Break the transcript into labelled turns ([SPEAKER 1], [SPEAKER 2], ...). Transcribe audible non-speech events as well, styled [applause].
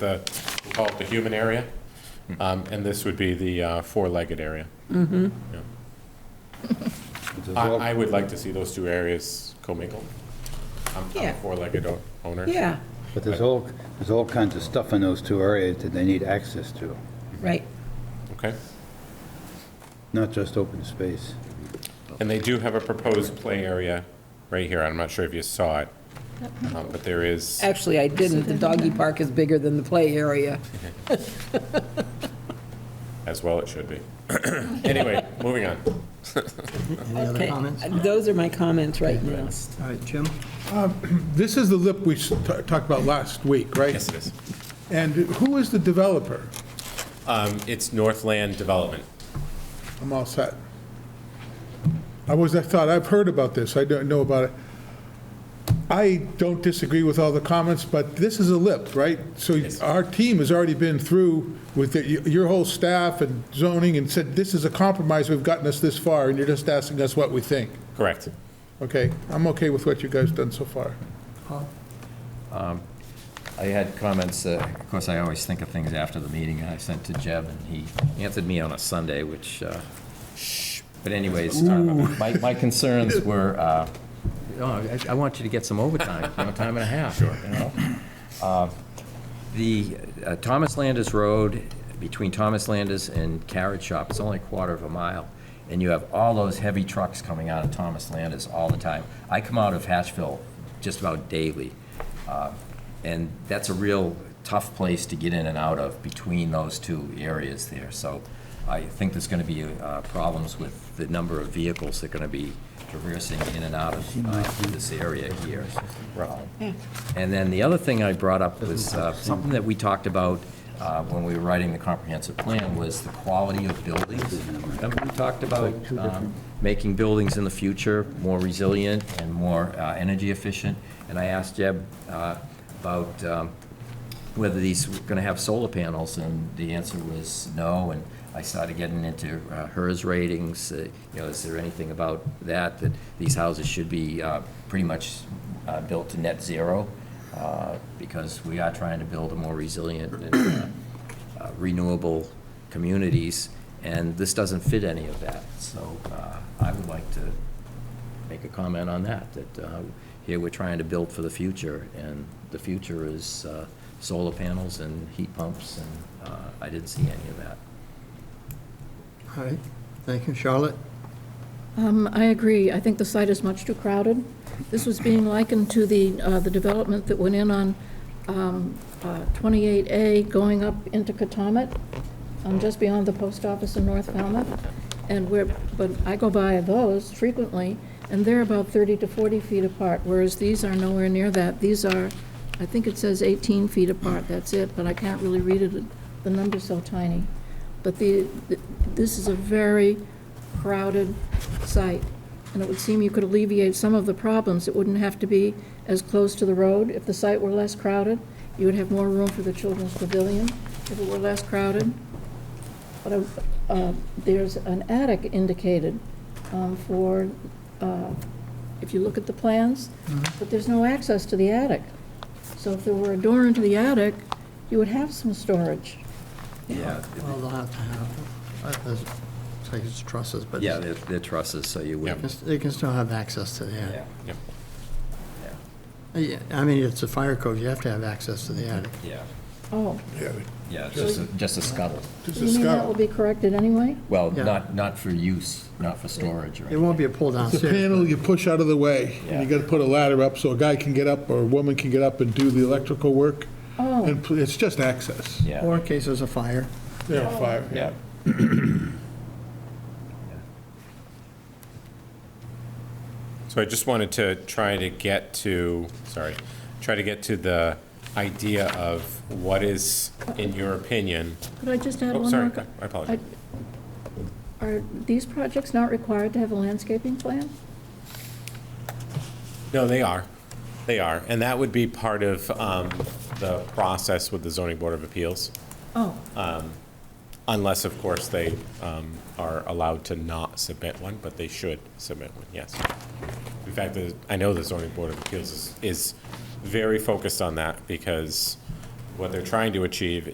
[SPEAKER 1] the, we call it the human area. Um, And this would be the uh, four-legged area.
[SPEAKER 2] Does
[SPEAKER 1] I,
[SPEAKER 2] all-
[SPEAKER 1] I would like to see those two areas commingled. I'm I'm a
[SPEAKER 3] Yeah.
[SPEAKER 1] four-legged o- owner.
[SPEAKER 3] Yeah,
[SPEAKER 2] But there's all, there's all kinds of stuff in those two areas that they need access to,
[SPEAKER 3] right.
[SPEAKER 1] Okay.
[SPEAKER 2] not just open space.
[SPEAKER 1] And they do have a proposed play area right here. I'm not sure if you saw it, um, but there is,
[SPEAKER 3] Actually, I didn't. The doggy park is bigger than the play area.
[SPEAKER 1] as well it should be. [coughs] Anyway, moving on.
[SPEAKER 4] Any other
[SPEAKER 3] Okay,
[SPEAKER 4] comments?
[SPEAKER 3] Those are my comments right now.
[SPEAKER 4] All right, Jim?
[SPEAKER 5] Um, [clears throat] This is the lip we s- ta- talked about last week, right?
[SPEAKER 1] Yes, it is.
[SPEAKER 5] And who is the developer?
[SPEAKER 1] Um, It's Northland Development.
[SPEAKER 5] I'm all set. I was, I thought, I've heard about this, I don't know about it. I don't disagree with all the comments, but this is a lip, right? So our team has already been through with the- your whole staff and zoning and said, this is a compromise, we've gotten us this far, and you're just asking us what we think.
[SPEAKER 1] Correct.
[SPEAKER 5] Okay, I'm okay with what you guys done so far.
[SPEAKER 6] I had comments, uh, of course, I always think of things after the meeting, I sent to Jeb, and he answered me on a Sunday, which, uh, but anyways, uh, my my concerns were, uh, oh, I I want you to get some overtime, you know, time and a half, you know? Uh, The uh, Thomas Landers Road, between Thomas Landers and Carrot Shop, it's only a quarter of a mile, and you have all those heavy trucks coming out of Thomas Landers all the time. I come out of Hatchville just about daily, uh, and that's a real tough place to get in and out of between those two areas there. So I think there's going to be uh, problems with the number of vehicles that are going to be traversing in and out of uh, this area here. And then the other thing I brought up was uh, something that we talked about uh, when we were writing the comprehensive plan was the quality of buildings. Remember, we talked about um, making buildings in the future more resilient and more uh, energy efficient? And I asked Jeb uh, about um, whether these were going to have solar panels, and the answer was no, and I started getting into uh, HERS ratings, uh, you know, is there anything about that, that these houses should be uh, pretty much uh, built to net zero, uh, because we are trying to build a more resilient and uh, uh, renewable communities, and this doesn't fit any of that, so uh, I would like to make a comment on that, that uh, here we're trying to build for the future, and the future is uh, solar panels and heat pumps, and uh, I didn't see any of that.
[SPEAKER 4] All right, thank you, Charlotte.
[SPEAKER 7] Um, I agree. I think the site is much too crowded. This was being likened to the, uh, the development that went in on um, uh, 28A going up into Katomet, um, just beyond the post office in North Falmouth. And where, but I go by those frequently, and they're about 30 to 40 feet apart, whereas these are nowhere near that. These are, I think it says 18 feet apart, that's it, but I can't really read it, the number's so tiny. But the, th- this is a very crowded site, and it would seem you could alleviate some of the problems. It wouldn't have to be as close to the road. If the site were less crowded, you would have more room for the children's pavilion if it were less crowded. But uh, there's an attic indicated um, for, uh, if you look at the plans, but there's no access to the attic. So if there were a door into the attic, you would have some storage.
[SPEAKER 6] Yeah,
[SPEAKER 4] Well, they'll have to have, uh, it's like it's trusses, but
[SPEAKER 6] yeah, they're they're trusses, so you wouldn't.
[SPEAKER 4] it's- they can still have access to the attic. Uh,
[SPEAKER 1] Yep.
[SPEAKER 4] Yeah, I mean, it's a fire code, you have to have access to the attic.
[SPEAKER 6] Yeah,
[SPEAKER 7] Oh,
[SPEAKER 5] Yeah,
[SPEAKER 6] yeah, it's just, a- just a scuttle.
[SPEAKER 5] just
[SPEAKER 7] you
[SPEAKER 5] a
[SPEAKER 7] mean that
[SPEAKER 5] scout.
[SPEAKER 7] will be corrected anyway?
[SPEAKER 6] Well,
[SPEAKER 4] Yeah.
[SPEAKER 6] not, not for use, not for storage or
[SPEAKER 4] It
[SPEAKER 6] anything.
[SPEAKER 4] won't be a pull down.
[SPEAKER 5] It's a panel you push out of the way, and you
[SPEAKER 6] Yeah.
[SPEAKER 5] gotta put a ladder up so a guy can get up or a woman can get up and do the electrical work.
[SPEAKER 7] Oh.
[SPEAKER 5] And pl- it's just access.
[SPEAKER 4] Or
[SPEAKER 6] Yeah,
[SPEAKER 4] in case there's a fire.
[SPEAKER 5] They're on fire.
[SPEAKER 6] yeah.
[SPEAKER 1] So I just wanted to try to get to, sorry, try to get to the idea of what is, in your opinion,
[SPEAKER 7] Could I just add
[SPEAKER 1] oh,
[SPEAKER 7] one
[SPEAKER 1] sorry,
[SPEAKER 7] more? co-
[SPEAKER 1] I apologize.
[SPEAKER 7] Are these projects not required to have a landscaping plan?
[SPEAKER 1] No, they are. They are. And that would be part of um, the process with the zoning board of appeals, Um,
[SPEAKER 7] Oh,
[SPEAKER 1] unless, of course, they um, are allowed to not submit one, but they should submit one, yes. In fact, the- I know the zoning board of appeals is, is very focused on that because what they're trying to achieve